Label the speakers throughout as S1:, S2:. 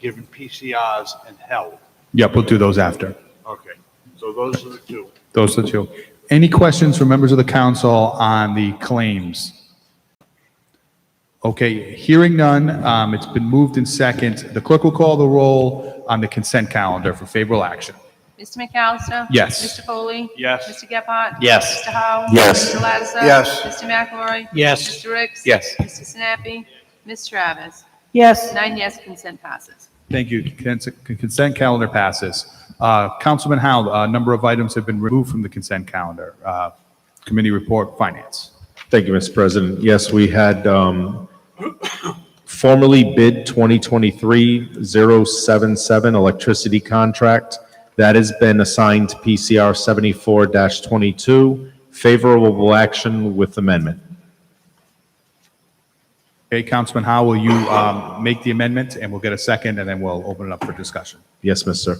S1: given PCRs and held.
S2: Yep, we'll do those after.
S1: Okay, so those are the two.
S2: Those are the two. Any questions from members of the council on the claims? Okay, hearing none, um, it's been moved in second. The clerk will call the roll on the consent calendar for favorable action.
S3: Mr. McAllister?
S2: Yes.
S3: Mr. Foley?
S1: Yes.
S3: Mr. Gephardt?
S4: Yes.
S3: Mr. Howe?
S4: Yes.
S3: Mr. Lattiser?
S1: Yes.
S3: Mr. McElroy?
S4: Yes.
S3: Mr. Ricks?
S4: Yes.
S3: Mr. Sinapi? Ms. Travis?
S5: yes,
S3: Nine yes, consent passes.
S2: Thank you. Cons- Consent calendar passes. Uh, Councilman Howe, a number of items have been removed from the consent calendar. Uh, Committee report, finance.
S6: Thank you, Mr. President. Yes, we had um, formerly bid 2023-077 electricity contract. That has been assigned to PCR 74-22, favorable action with amendment.
S2: Okay, Councilman Howe, will you um, make the amendment, and we'll get a second, and then we'll open it up for discussion.
S6: Yes, Mr.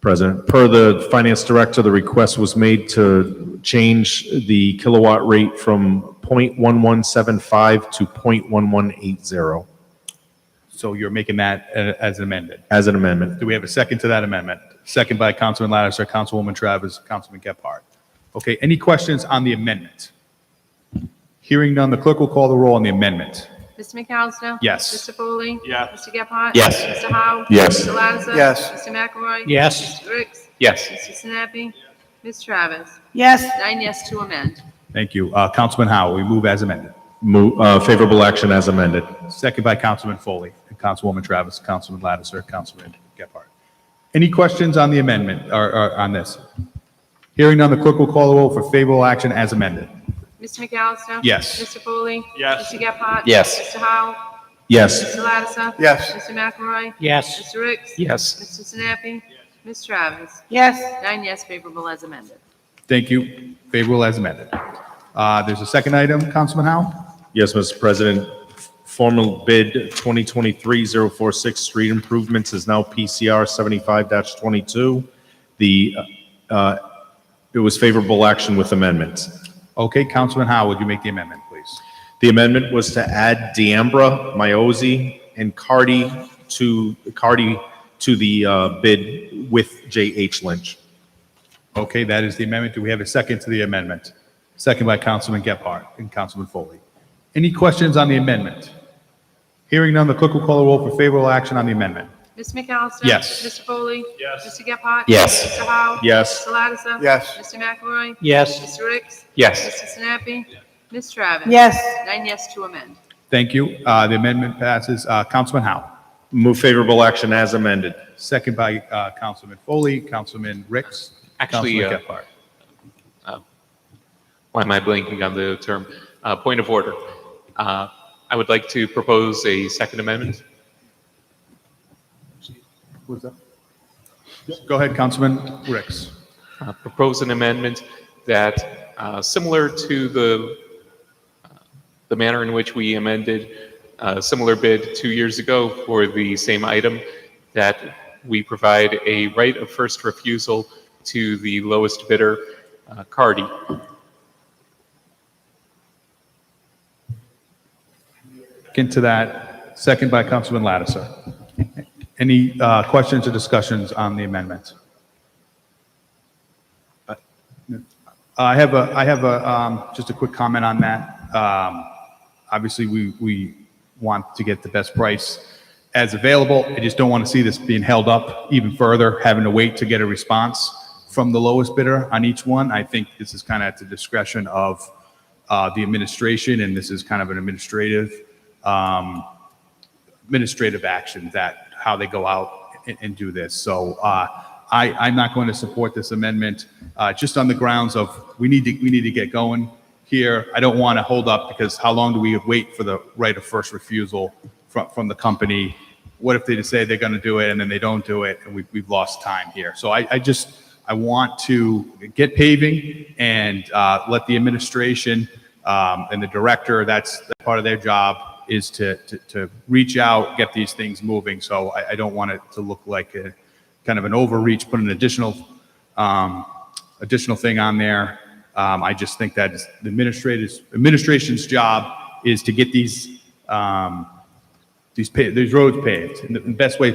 S6: President. Per the Finance Director, the request was made to change the kilowatt rate from .1175 to .1180
S2: So you're making that uh, as amended.
S6: as an amendment.
S2: Do we have a second to that amendment? Second by Councilman Lattiser, Councilwoman Travis, Councilman Gephardt. Okay, any questions on the amendment? Hearing none, the clerk will call the roll on the amendment.
S3: Mr. McAllister?
S2: Yes.
S3: Mr. Foley?
S1: Yes.
S3: Mr. Gephardt?
S4: Yes.
S3: Mr. Howe?
S4: Yes.
S3: Mr. Lattiser?
S1: Yes.
S3: Mr. McElroy?
S4: Yes.
S3: Mr. Ricks?
S4: Yes.
S3: Mr. Sinapi? Ms. Travis?
S5: yes,
S3: Nine yes to amend.
S2: Thank you. Uh, Councilman Howe, we move as amended.
S6: Mo- uh, Favorable action as amended.
S2: Second by Councilman Foley, and Councilwoman Travis, Councilman Lattiser, Councilman Gephardt. Any questions on the amendment, or, or on this? Hearing none, the clerk will call the roll for favorable action as amended.
S3: Mr. McAllister?
S2: Yes.
S3: Mr. Foley?
S1: Yes.
S3: Mr. Gephardt?
S4: Yes.
S3: Mr. Howe?
S6: Yes.
S3: Mr. Lattiser?
S1: Yes.
S3: Mr. McElroy?
S4: Yes.
S3: Mr. Ricks?
S4: Yes.
S3: Mr. Sinapi? Ms. Travis?
S5: yes,
S3: Nine yes, favorable as amended.
S2: Thank you. Favorable as amended. Uh, there's a second item, Councilman Howe?
S6: Yes, Mr. President. Formal bid 2023-046 street improvements is now PCR 75-22. The, uh, it was favorable action with amendments.
S2: Okay, Councilman Howe, would you make the amendment, please?
S6: The amendment was to add Deambra, Miozzi, and Cardi to, Cardi to the uh, bid with J.H. Lynch.
S2: Okay, that is the amendment. Do we have a second to the amendment? Second by Councilman Gephardt and Councilman Foley. Any questions on the amendment? Hearing none, the clerk will call the roll for favorable action on the amendment.
S3: Ms. McAllister?
S2: Yes.
S3: Mr. Foley?
S1: Yes.
S3: Mr. Gephardt?
S4: Yes.
S3: Mr. Howe?
S6: Yes.
S3: Mr. Lattiser?
S1: Yes.
S3: Mr. McElroy?
S4: Yes.
S3: Mr. Ricks?
S4: Yes.
S3: Mr. Sinapi? Ms. Travis?
S5: yes,
S3: Nine yes to amend.
S2: Thank you. Uh, The amendment passes. Uh, Councilman Howe,
S6: Move favorable action as amended.
S2: second by uh, Councilman Foley, Councilman Ricks,
S7: Actually,
S2: Councilman
S7: uh,
S2: Gephardt.
S7: Why am I blanking on the term? Uh, Point of order. Uh, I would like to propose a second amendment.
S2: Go ahead, Councilman Ricks.
S7: Uh, Propose an amendment that, uh, similar to the, uh, the manner in which we amended a similar bid two years ago for the same item, that we provide a right of first refusal to the lowest bidder, uh, Cardi.
S2: Into that, second by Councilman Lattiser. Any uh, questions or discussions on the amendment? Uh, I have a, I have a, um, just a quick comment on that. Um, Obviously, we, we want to get the best price as available. I just don't want to see this being held up even further, having to wait to get a response from the lowest bidder on each one. I think this is kind of at the discretion of uh, the administration, and this is kind of an administrative um, administrative action that, how they go out and, and do this. So uh, I, I'm not going to support this amendment, uh, just on the grounds of, we need to, we need to get going here. I don't want to hold up, because how long do we wait for the right of first refusal from, from the company? What if they just say they're going to do it, and then they don't do it, and we, we've lost time here? So I, I just, I want to get paving and uh, let the administration um, and the director, that's that's part of their job, is to, to, to reach out, get these things moving. So I, I don't want it to look like a, kind of an overreach, put an additional, um, additional thing on there. Um, I just think that is- the administrators, administration's job is to get these, um, these, pa- these roads paved in the best way